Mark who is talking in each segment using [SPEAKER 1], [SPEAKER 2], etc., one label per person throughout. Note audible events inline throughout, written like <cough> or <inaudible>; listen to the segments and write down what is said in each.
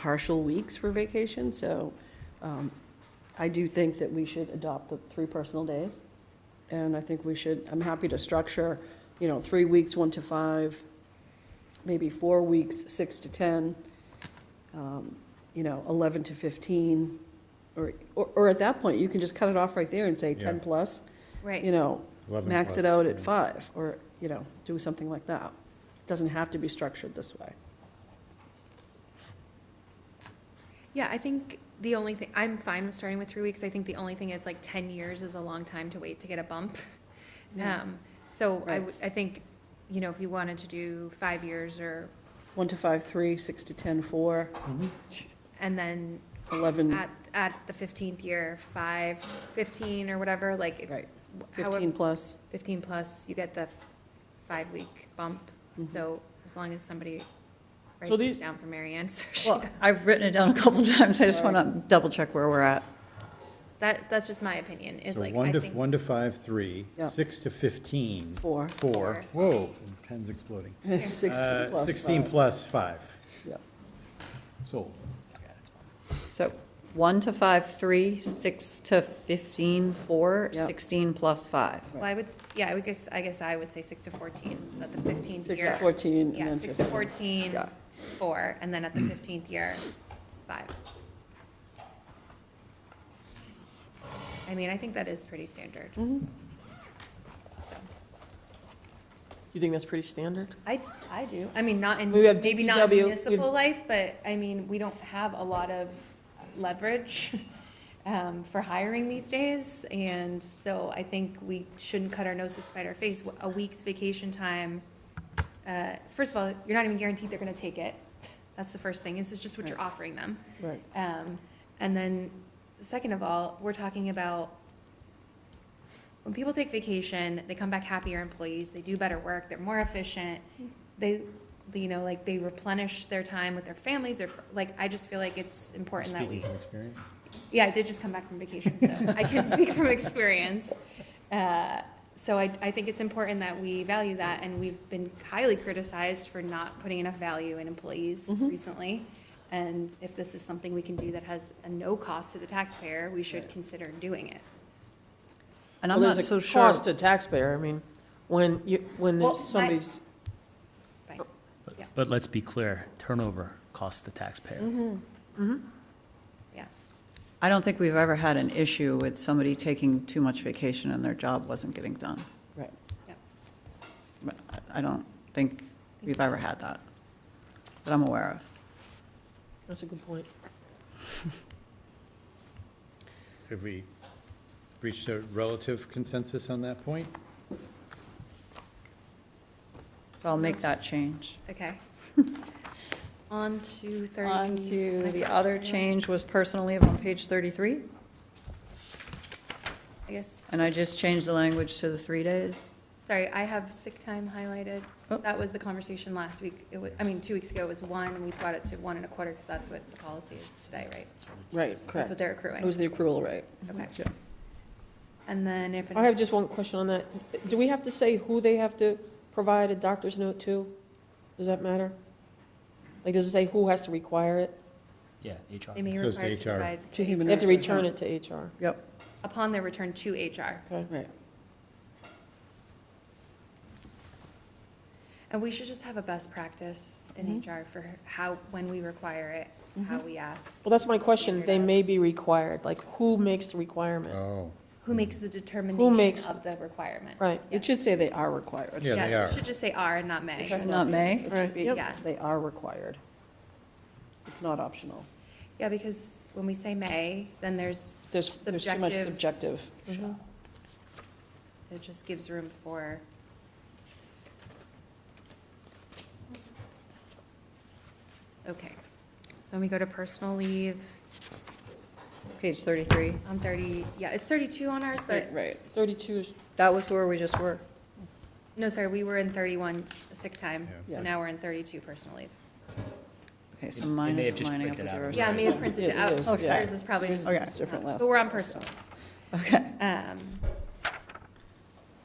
[SPEAKER 1] partial weeks for vacation, so um, I do think that we should adopt the three personal days. And I think we should, I'm happy to structure, you know, three weeks, one to five, maybe four weeks, six to 10, um, you know, 11 to 15, or, or or at that point, you can just cut it off right there and say 10
[SPEAKER 2] Yeah.
[SPEAKER 1] plus, you
[SPEAKER 3] Right,
[SPEAKER 1] know,
[SPEAKER 2] 11
[SPEAKER 1] max it
[SPEAKER 2] plus,
[SPEAKER 1] out
[SPEAKER 2] yeah.
[SPEAKER 1] at five, or, you know, do something like that. Doesn't have to be structured this way.
[SPEAKER 3] yeah, I think the only thing, I'm fine with starting with three weeks, I think the only thing is like ten years is a long time to wait to get a bump.
[SPEAKER 1] <laughs> Yeah.
[SPEAKER 3] Um, so I
[SPEAKER 1] Right.
[SPEAKER 3] would, I think, you know, if you wanted to do five years or,
[SPEAKER 1] One to five, three, six to 10, four,
[SPEAKER 3] and then
[SPEAKER 1] 11,
[SPEAKER 3] at, at the fifteenth year, five, fifteen or whatever, like. if-
[SPEAKER 1] Right.
[SPEAKER 3] however-
[SPEAKER 1] 15 plus. <laughs>
[SPEAKER 3] Fifteen plus, you get the five-week bump,
[SPEAKER 1] Mm-hmm.
[SPEAKER 3] so as long as somebody writes
[SPEAKER 4] So
[SPEAKER 3] this
[SPEAKER 4] these-
[SPEAKER 3] down for Mary Ann, <laughs> so she,
[SPEAKER 4] Well, I've written it down a couple <laughs> times, I just want to double check where we're at.
[SPEAKER 3] that, that's just my opinion, is
[SPEAKER 2] So
[SPEAKER 3] like,
[SPEAKER 2] one
[SPEAKER 3] I
[SPEAKER 2] to,
[SPEAKER 3] think.
[SPEAKER 2] one to five, three,
[SPEAKER 1] Yeah.
[SPEAKER 2] six to 15.
[SPEAKER 1] Four.
[SPEAKER 2] Four, whoa, pen's exploding.
[SPEAKER 1] 16
[SPEAKER 2] Uh,
[SPEAKER 1] plus.
[SPEAKER 2] 16
[SPEAKER 1] five.
[SPEAKER 2] plus five,
[SPEAKER 1] Yeah.
[SPEAKER 2] sold.
[SPEAKER 4] So 1 to 5, 3, 6 to 15, 4,
[SPEAKER 1] Yep.
[SPEAKER 4] 16 plus 5.
[SPEAKER 3] Well, I would, yeah, I would guess, I guess I would say six to fourteen, so that the fifteenth year.
[SPEAKER 1] Six to 14 and
[SPEAKER 3] Yeah,
[SPEAKER 1] then
[SPEAKER 3] six to
[SPEAKER 1] 15.
[SPEAKER 3] fourteen,
[SPEAKER 4] Yeah.
[SPEAKER 3] four, and then at the fifteenth year, five. I mean, I think that is pretty standard.
[SPEAKER 1] Mm-hmm.
[SPEAKER 3] So,
[SPEAKER 5] You think that's pretty standard?
[SPEAKER 3] I, I do, I mean, not in,
[SPEAKER 1] We have
[SPEAKER 3] maybe not in
[SPEAKER 1] DPW, you'd-
[SPEAKER 3] municipal life, but, I mean, we don't have a lot of leverage <laughs> um, for hiring these days, and so I think we shouldn't cut our nose to spite our face. A week's vacation time, uh, first of all, you're not even guaranteed they're gonna take it. That's the first thing, this is just what you're offering them.
[SPEAKER 1] Right.
[SPEAKER 3] Um, and then, second of all, we're talking about when people take vacation, they come back happier employees, they do better work, they're more efficient, they, you know, like, they replenish their time with their families, or, like, I just feel like it's important that
[SPEAKER 2] Speaking
[SPEAKER 3] we,
[SPEAKER 2] from experience.
[SPEAKER 3] yeah, I did just come back from vacation, so I
[SPEAKER 4] <laughs>
[SPEAKER 3] can speak from experience. Uh, So I, I think it's important that we value that, and we've been highly criticized for not putting enough value in employees
[SPEAKER 4] Mm-hmm.
[SPEAKER 3] recently. And if this is something we can do that has a no cost to the taxpayer, we should consider doing it.
[SPEAKER 4] And
[SPEAKER 5] Well,
[SPEAKER 4] I'm
[SPEAKER 5] there's
[SPEAKER 4] not
[SPEAKER 5] a
[SPEAKER 4] so sure,
[SPEAKER 5] Cost to taxpayer, I mean, when you, when
[SPEAKER 3] Well,
[SPEAKER 5] there's
[SPEAKER 3] my-
[SPEAKER 5] somebody's,
[SPEAKER 3] Fine. Yeah.
[SPEAKER 6] But let's be clear, turnover costs the taxpayer.
[SPEAKER 3] Yeah.
[SPEAKER 4] I don't think we've ever had an issue with somebody taking too much vacation and their job wasn't getting done.
[SPEAKER 1] Right.
[SPEAKER 4] But I- I don't think we've ever had that, that I'm aware of.
[SPEAKER 5] that's a good point.
[SPEAKER 2] Have we reached a relative consensus on that point?
[SPEAKER 4] So I'll make that change. <laughs>
[SPEAKER 3] Okay. On to thirty.
[SPEAKER 4] On to the other change was personal leave on page 33,
[SPEAKER 3] I guess,
[SPEAKER 4] and I just changed the language to the three days.
[SPEAKER 3] sorry, I have sick time highlighted.
[SPEAKER 4] Oh.
[SPEAKER 3] That was the conversation last week. It was, I mean, two weeks ago it was one, and we brought it to one and a quarter, because that's what the policy is today, right?
[SPEAKER 5] Right,
[SPEAKER 3] That's what
[SPEAKER 5] correct.
[SPEAKER 3] they're
[SPEAKER 1] It was
[SPEAKER 3] accruing.
[SPEAKER 1] the accrual rate.
[SPEAKER 3] Okay. And then if.
[SPEAKER 5] Oh, I have just one question on that. Do we have to say who they have to provide a doctor's note to? Does that matter? Like, does it say who has to require it?
[SPEAKER 6] Yeah, HR.
[SPEAKER 3] They may
[SPEAKER 2] So it's the
[SPEAKER 3] require to
[SPEAKER 2] HR.
[SPEAKER 3] provide.
[SPEAKER 1] To human
[SPEAKER 5] They have to
[SPEAKER 1] resources.
[SPEAKER 5] return it to HR,
[SPEAKER 4] Yep.
[SPEAKER 3] Upon their return to HR.
[SPEAKER 5] okay?
[SPEAKER 1] Right.
[SPEAKER 3] And we should just have a best practice in HR for how, when we require it, how we ask.
[SPEAKER 5] Well, that's my question, they may be required, like, who makes the requirement?
[SPEAKER 2] Oh,
[SPEAKER 3] Who makes the
[SPEAKER 5] makes-
[SPEAKER 3] determination of the requirement?
[SPEAKER 5] Right,
[SPEAKER 1] It should say they are required.
[SPEAKER 2] yeah, they are.
[SPEAKER 3] Yes, it should just say are and not may.
[SPEAKER 4] Not May?
[SPEAKER 1] It should be,
[SPEAKER 3] Right. Yep.
[SPEAKER 1] they are required. It's not optional.
[SPEAKER 3] Yeah, because when we say may, then there's
[SPEAKER 1] There's, there's too much
[SPEAKER 3] subjective,
[SPEAKER 1] subjective.
[SPEAKER 3] it just gives room for. Okay, so then we go to personal leave
[SPEAKER 4] Page 33.
[SPEAKER 3] on thirty, yeah, it's thirty-two on ours, but,
[SPEAKER 1] Right, Right.
[SPEAKER 5] 32 is,
[SPEAKER 4] That was where we just were.
[SPEAKER 3] no, sorry, we were in thirty-one sick time,
[SPEAKER 2] Yeah, it's
[SPEAKER 3] so
[SPEAKER 1] like-
[SPEAKER 3] now we're in thirty-two personal leave.
[SPEAKER 4] Okay,
[SPEAKER 6] It-
[SPEAKER 4] so
[SPEAKER 6] it
[SPEAKER 4] mine
[SPEAKER 6] may have
[SPEAKER 4] is
[SPEAKER 6] just
[SPEAKER 4] lining up
[SPEAKER 6] printed
[SPEAKER 4] with
[SPEAKER 6] out.
[SPEAKER 4] yours.
[SPEAKER 3] Yeah, I may have printed it
[SPEAKER 1] It
[SPEAKER 3] out,
[SPEAKER 1] is,
[SPEAKER 3] so
[SPEAKER 1] yeah.
[SPEAKER 3] yours is probably
[SPEAKER 1] Yours
[SPEAKER 3] just.
[SPEAKER 4] Okay.
[SPEAKER 1] is different last
[SPEAKER 3] But we're on
[SPEAKER 1] time, so-
[SPEAKER 3] personal.
[SPEAKER 4] Okay.
[SPEAKER 3] Um,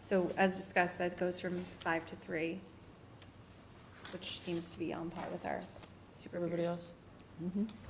[SPEAKER 3] So as discussed, that goes from five to three, which seems to be on par with our super
[SPEAKER 5] everybody
[SPEAKER 3] peers.
[SPEAKER 5] else?